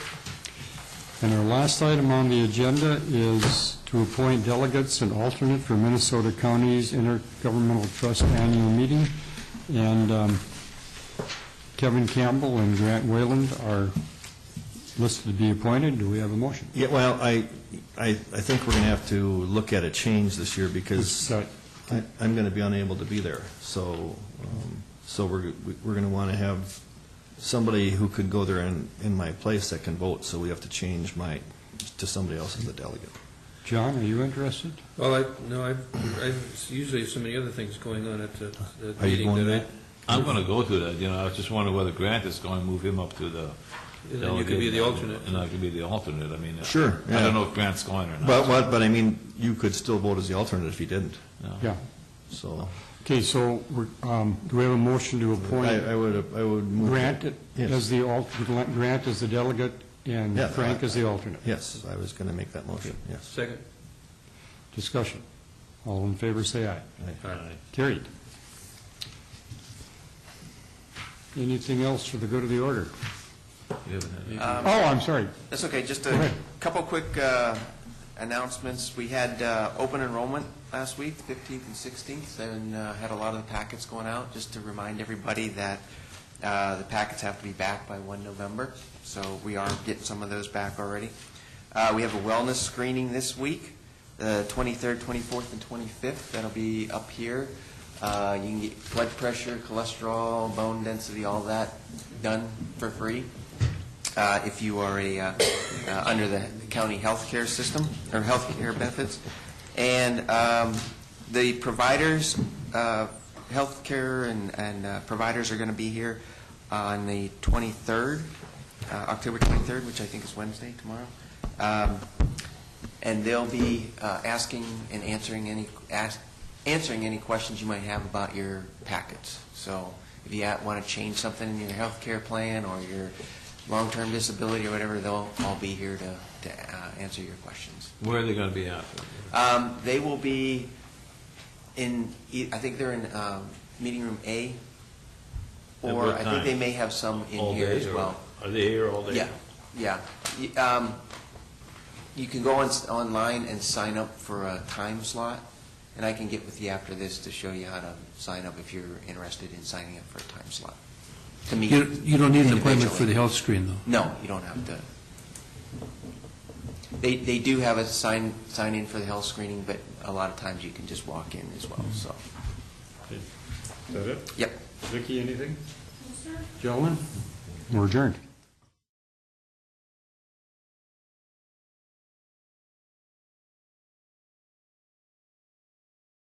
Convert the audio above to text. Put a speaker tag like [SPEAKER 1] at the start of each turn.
[SPEAKER 1] And our last item on the agenda is to appoint delegates and alternate for Minnesota County's Intergovernmental Trust Annual Meeting. And um, Kevin Campbell and Grant Wayland are listed to be appointed. Do we have a motion?
[SPEAKER 2] Yeah, well, I, I, I think we're going to have to look at a change this year because
[SPEAKER 1] So,
[SPEAKER 2] I- I'm going to be unable to be there. So, um, so we're, we're going to want to have somebody who could go there in, in my place that can vote. So we have to change my, to somebody else as the delegate.
[SPEAKER 1] John, are you interested?
[SPEAKER 3] Well, I, no, I, I usually have so many other things going on at the the
[SPEAKER 2] Are you
[SPEAKER 3] meeting
[SPEAKER 2] going
[SPEAKER 3] that
[SPEAKER 4] I'm going to go to that, you know, I was just wondering whether Grant is going to move him up to the...
[SPEAKER 3] I, and you could be the alternate.
[SPEAKER 4] And I could be the alternate, I mean... uh,
[SPEAKER 2] Sure,
[SPEAKER 4] I
[SPEAKER 2] yeah.
[SPEAKER 4] don't know if Grant's going or not.
[SPEAKER 2] But, but, but I mean, you could still vote as the alternate if you didn't,
[SPEAKER 4] No.
[SPEAKER 1] Yeah.
[SPEAKER 2] so.
[SPEAKER 1] Okay, so we're, um, do we have a motion to
[SPEAKER 2] I,
[SPEAKER 1] appoint
[SPEAKER 2] I would, I would move.
[SPEAKER 1] Grant
[SPEAKER 2] Yes.
[SPEAKER 1] as the alternate, Grant as the delegate and
[SPEAKER 2] Yeah.
[SPEAKER 1] Frank as the alternate?
[SPEAKER 2] Yes, I was going to make that motion, yes.
[SPEAKER 3] Second?
[SPEAKER 1] Discussion. All in favor, say aye.
[SPEAKER 4] Aye.
[SPEAKER 1] Carried. Anything else for the good of the order?
[SPEAKER 4] You haven't had-
[SPEAKER 1] Oh, I'm sorry.
[SPEAKER 5] That's okay, just
[SPEAKER 1] Go
[SPEAKER 5] a
[SPEAKER 1] ahead.
[SPEAKER 5] couple quick uh, announcements. We had uh, open enrollment last week, 15th and 16th, and uh, had a lot of the packets going out, just to remind everybody that uh, the packets have to be back by 1 November, so we are getting some of those back already. Uh, We have a wellness screening this week, the 23rd, 24th, and 25th. That'll be up here. Uh, You can get blood pressure, cholesterol, bone density, all that done for free uh, if you are a, uh, uh, under the county health care system, or health care benefits. And um, the providers, uh, health care and and uh, providers are going to be here on the 23rd, uh, October 23rd, which I think is Wednesday, tomorrow. Um, and they'll be uh, asking and answering any, ask- answering any questions you might have about your packets. So if you want to change something in your health care plan or your long-term disability or whatever, they'll all be here to, to uh, answer your questions.
[SPEAKER 4] Where are they going to be at?
[SPEAKER 5] Um, They will be in, e- I think they're in um, meeting room A,
[SPEAKER 4] At
[SPEAKER 5] or
[SPEAKER 4] what
[SPEAKER 5] I think
[SPEAKER 4] time?
[SPEAKER 5] they may have some in
[SPEAKER 4] All
[SPEAKER 5] here
[SPEAKER 4] day,
[SPEAKER 5] as
[SPEAKER 4] or-
[SPEAKER 5] well.
[SPEAKER 4] Are they here all day?
[SPEAKER 5] Yeah, yeah. Y- um, You can go on, online and sign up for a time slot, and I can get with you after this to show you how to sign up if you're interested in signing up for a time slot. To meet
[SPEAKER 6] You you don't need an appointment for the
[SPEAKER 5] individually.
[SPEAKER 6] health screen, though.
[SPEAKER 5] No, you don't have to. They, they do have a sign, sign in for the health screening, but a lot of times you can just walk in as well, so.
[SPEAKER 1] Is that it?
[SPEAKER 5] Yep.
[SPEAKER 1] Vicki, anything? Gentlemen, we're adjourned.